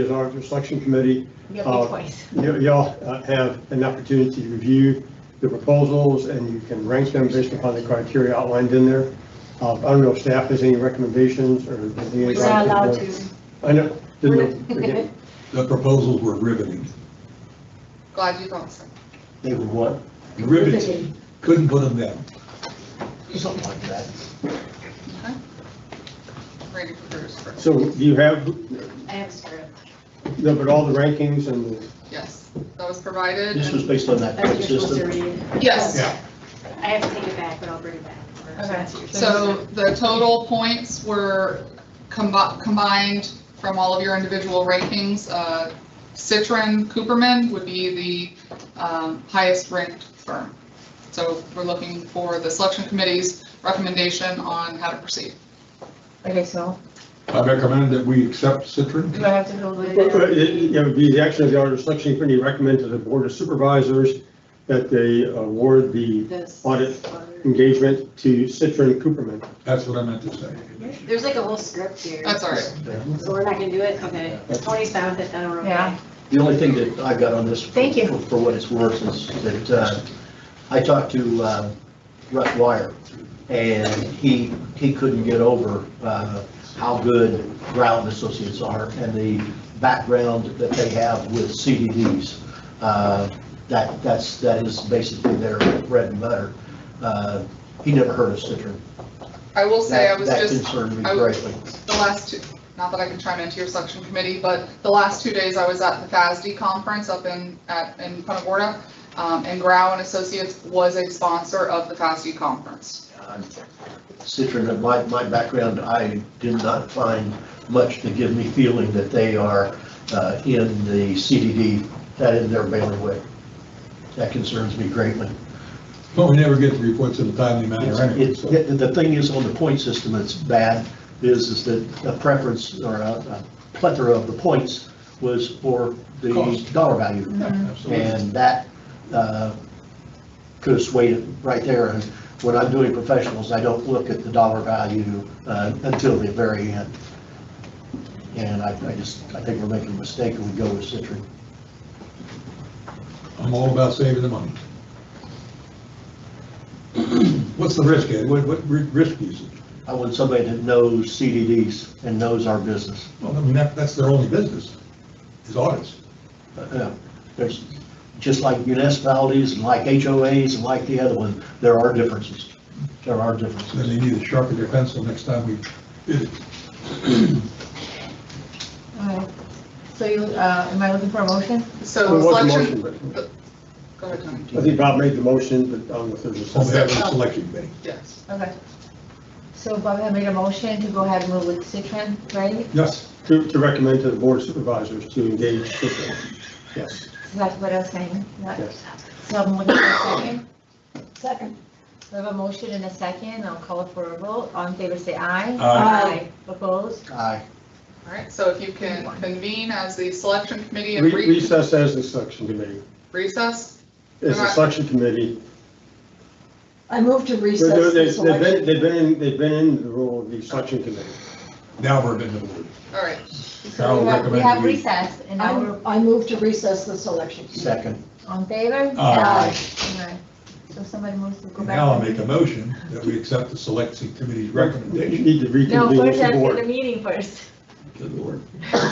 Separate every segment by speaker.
Speaker 1: As our selection committee,
Speaker 2: You
Speaker 1: Uh,
Speaker 2: have twice.
Speaker 1: y- y'all uh, have an opportunity to review the proposals and you can rank them based upon the criteria outlined in there. Uh, I don't know if staff has any recommendations or.
Speaker 2: We're not allowed to.
Speaker 1: I know, didn't know, again,
Speaker 3: The proposals were riveting.
Speaker 4: Glad you thought so.
Speaker 1: they would want.
Speaker 3: Riveting. Couldn't put them down.
Speaker 5: Something like that.
Speaker 4: Ready for Bruce first.
Speaker 1: So do you have,
Speaker 2: I have a script.
Speaker 1: no, but all the rankings and the
Speaker 4: Yes, that was provided.
Speaker 5: This was
Speaker 4: and-
Speaker 5: based on that
Speaker 2: That's what
Speaker 5: point
Speaker 2: you're supposed to
Speaker 5: system.
Speaker 2: read.
Speaker 4: Yes,
Speaker 2: I have to take it back, but I'll bring it back. That's yours.
Speaker 4: so the total points were combi- combined from all of your individual rankings. Uh, Citron Cooperman would be the um, highest ranked firm. So we're looking for the selection committee's recommendation on how to proceed.
Speaker 6: Okay, so
Speaker 3: I recommend that we accept Citron.
Speaker 6: do I have to go with
Speaker 1: Well, It
Speaker 6: it?
Speaker 1: it would be the action of the Auditor Selection Committee recommend to the Board of Supervisors that they award the
Speaker 2: This.
Speaker 1: audit. engagement to Citron Cooperman.
Speaker 3: That's what I meant to say.
Speaker 2: There's like a whole script here.
Speaker 4: That's all right.
Speaker 2: So we're not gonna do it? Okay. Tony found it, then we're okay.
Speaker 6: Yeah.
Speaker 5: The only thing that I've got on this.
Speaker 6: Thank you.
Speaker 5: for- For what it's worth is that uh, I talked to uh, Russ Wire, and he, he couldn't get over uh, how good Brown Associates are and the background that they have with CDDs. Uh, That, that's, that is basically their bread and butter. Uh, He never heard of Citron.
Speaker 4: I will say, I
Speaker 5: That
Speaker 4: was
Speaker 5: that
Speaker 4: just
Speaker 5: concerned me
Speaker 4: I was-
Speaker 5: greatly.
Speaker 4: the last two, not that I can chime into your selection committee, but the last two days I was at the FASD conference up in, at, in Punta Gorda. Um, and Grau and Associates was a sponsor of the FASD conference.
Speaker 5: Um, Citron, in my, my background, I did not find much to give me feeling that they are uh, in the CDD, that in their bailiwick. That concerns me greatly.
Speaker 3: But we never get the reports in a timely manner anyway,
Speaker 5: It's-
Speaker 3: so.
Speaker 5: The the thing is, on the point system, it's bad, is, is that a preference or a a plethora of the points was for the
Speaker 3: Cost.
Speaker 5: dollar value.
Speaker 3: Yeah, absolutely.
Speaker 5: And that uh, could have swayed it right there. And when I'm doing professionals, I don't look at the dollar value uh, until the very end. And I I just, I think we're making a mistake when we go with Citron.
Speaker 3: I'm all about saving the money. What's the risk, Ed? What, what ri- risk is it?
Speaker 5: I want somebody that knows CDDs and knows our business.
Speaker 3: Well, I mean, that, that's their only business, is audits.
Speaker 5: Uh, There's, just like municipalities and like HOAs and like the other one, there are differences. There are
Speaker 3: So Then
Speaker 5: differences.
Speaker 3: they need to sharpen their pencil next time we bid it.
Speaker 6: Alright. So you, uh, am I looking for a motion?
Speaker 4: So
Speaker 1: There was a
Speaker 4: selection,
Speaker 1: motion,
Speaker 4: go ahead, Tony.
Speaker 1: but I think Bob made the motion, but I don't know if there's a
Speaker 3: So we have
Speaker 1: second.
Speaker 3: a selection committee.
Speaker 4: Yes.
Speaker 6: Okay. So Bob had made a motion to go ahead and move with Citron, right?
Speaker 3: Yes,
Speaker 1: To, to recommend to the Board of Supervisors to engage Citron. Yes,
Speaker 6: So That's what I was saying. Not-
Speaker 1: yes.
Speaker 6: So I'm looking for a second.
Speaker 2: Second.
Speaker 6: We have a motion and a second. I'll call for a vote. All in favor, say aye.
Speaker 2: Aye.
Speaker 6: Opposed?
Speaker 5: Aye.
Speaker 4: All right, so if you can convene as the selection committee and
Speaker 1: Re-
Speaker 4: re-
Speaker 1: Recess as the selection committee,
Speaker 4: recess,
Speaker 1: as the selection committee.
Speaker 7: I move
Speaker 1: They're-
Speaker 7: to
Speaker 1: they're-
Speaker 7: recess the
Speaker 1: They've been,
Speaker 7: selection.
Speaker 1: they've been, in- they've been in the role of the selection committee.
Speaker 3: now we're in the word.
Speaker 4: all right.
Speaker 6: So we have- We have recess and now we're
Speaker 7: I'm- I move to recess the selection.
Speaker 5: Second.
Speaker 6: on favor?
Speaker 3: Aye.
Speaker 6: Aye. So somebody moves to go back.
Speaker 3: Now I'll make a motion that we accept the selection committee's
Speaker 1: You
Speaker 3: recommendation.
Speaker 1: need to
Speaker 6: No,
Speaker 1: reconvene as
Speaker 6: first I
Speaker 1: the
Speaker 6: have to get the
Speaker 1: board.
Speaker 6: meeting first.
Speaker 3: Good Lord.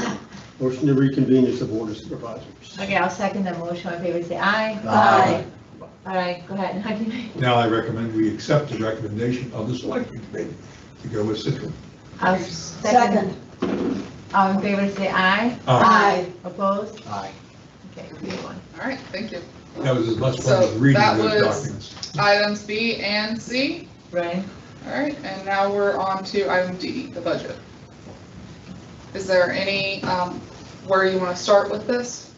Speaker 1: Motion to reconvene as the Board of Supervisors.
Speaker 6: Okay, I'll second the motion. All in favor, say aye.
Speaker 5: Aye.
Speaker 6: All right, go ahead. How do you-
Speaker 3: Now I recommend we accept the recommendation of the selection committee to go with Citron.
Speaker 6: I'll
Speaker 7: Second.
Speaker 6: second. All in favor, say aye.
Speaker 4: Ah.
Speaker 7: Aye.
Speaker 6: Opposed?
Speaker 5: Aye.
Speaker 6: Okay, three to one.
Speaker 4: All right, thank you.
Speaker 3: That was as much fun
Speaker 4: So
Speaker 3: as reading
Speaker 4: that
Speaker 3: those
Speaker 4: was-
Speaker 3: documents.
Speaker 4: Items B and C.
Speaker 6: Right.
Speaker 4: All right, and now we're on to item D, the budget. Is there any, um, where you want to start with this?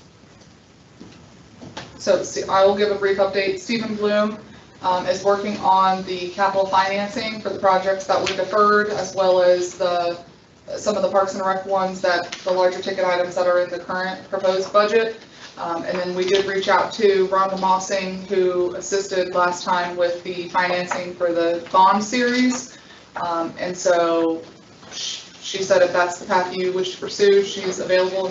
Speaker 4: So see, I will give a brief update. Stephen Bloom um, is working on the capital financing for the projects that were deferred, as well as the, some of the Parks and Rec ones that, the larger ticket items that are in the current proposed budget. Um, And then we did reach out to Rhonda Mossing, who assisted last time with the financing for the bond series. Um, And so sh- she said if that's the path you wish to pursue, she's available